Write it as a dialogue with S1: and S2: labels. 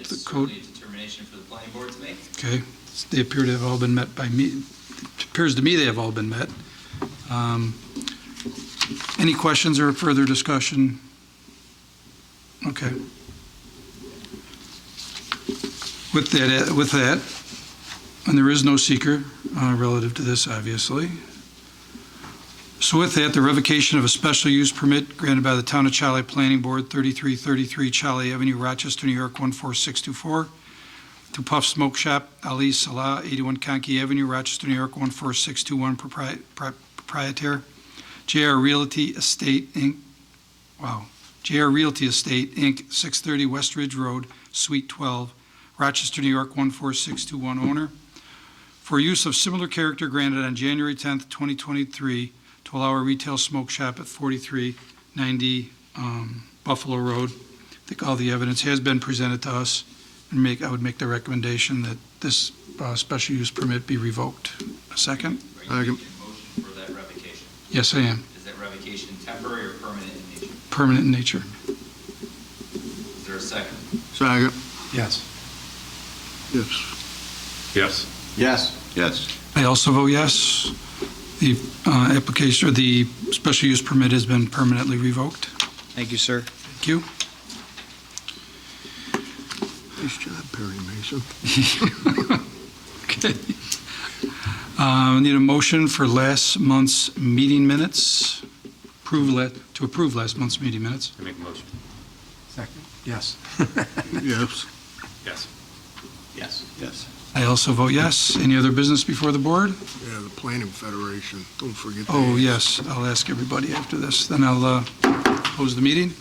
S1: is
S2: The
S1: certainly a determination for the planning board to make.
S2: Okay, they appear to have all been met by me, it appears to me they have all been met. Um, Any questions or further discussion? Okay. With that, uh, with that, and there is no seeker uh, relative to this, obviously. So with that, the revocation of a special use permit granted by the Town of Charlie Planning Board, 3333 Charlie Avenue, Rochester, New York, 14624, to Puff Smoke Shop, Ali Salah, 81 Conkey Avenue, Rochester, New York, 14621, propri- pro- proprietor, JR Realty Estate, Inc., wow, JR Realty Estate, Inc., 630 West Ridge Road, Suite 12, Rochester, New York, 14621, owner, for use of similar character granted on January 10th, 2023, to allow a retail smoke shop at 4390 um, Buffalo Road. I think all the evidence has been presented to us and make, I would make the recommendation that this uh, special use permit be revoked. A second?
S1: Are you making a motion for that revocation?
S2: Yes, I am.
S1: Is that revocation temporary or permanent in nature?
S2: Permanent in nature.
S1: Is there a second?
S3: Second.
S4: Yes.
S3: Yes.
S5: Yes.
S4: Yes.
S3: Yes.
S2: I also vote yes. The uh, application, or the special use permit has been permanently revoked.
S4: Thank you, sir.
S2: Thank you.
S3: Nice job, Perry Mason.
S2: Okay. Uh, Need a motion for last month's meeting minutes? Approve, la- to approve last month's meeting minutes?
S5: I make a motion.
S4: Second. Yes.
S3: Yes.
S5: Yes.
S4: Yes. Yes.
S2: I also vote yes. Any other business before the board?
S3: Yeah, the Planning Federation, don't forget.
S2: Oh,
S3: that.
S2: yes, I'll ask everybody after this. Then I'll uh, close the meeting.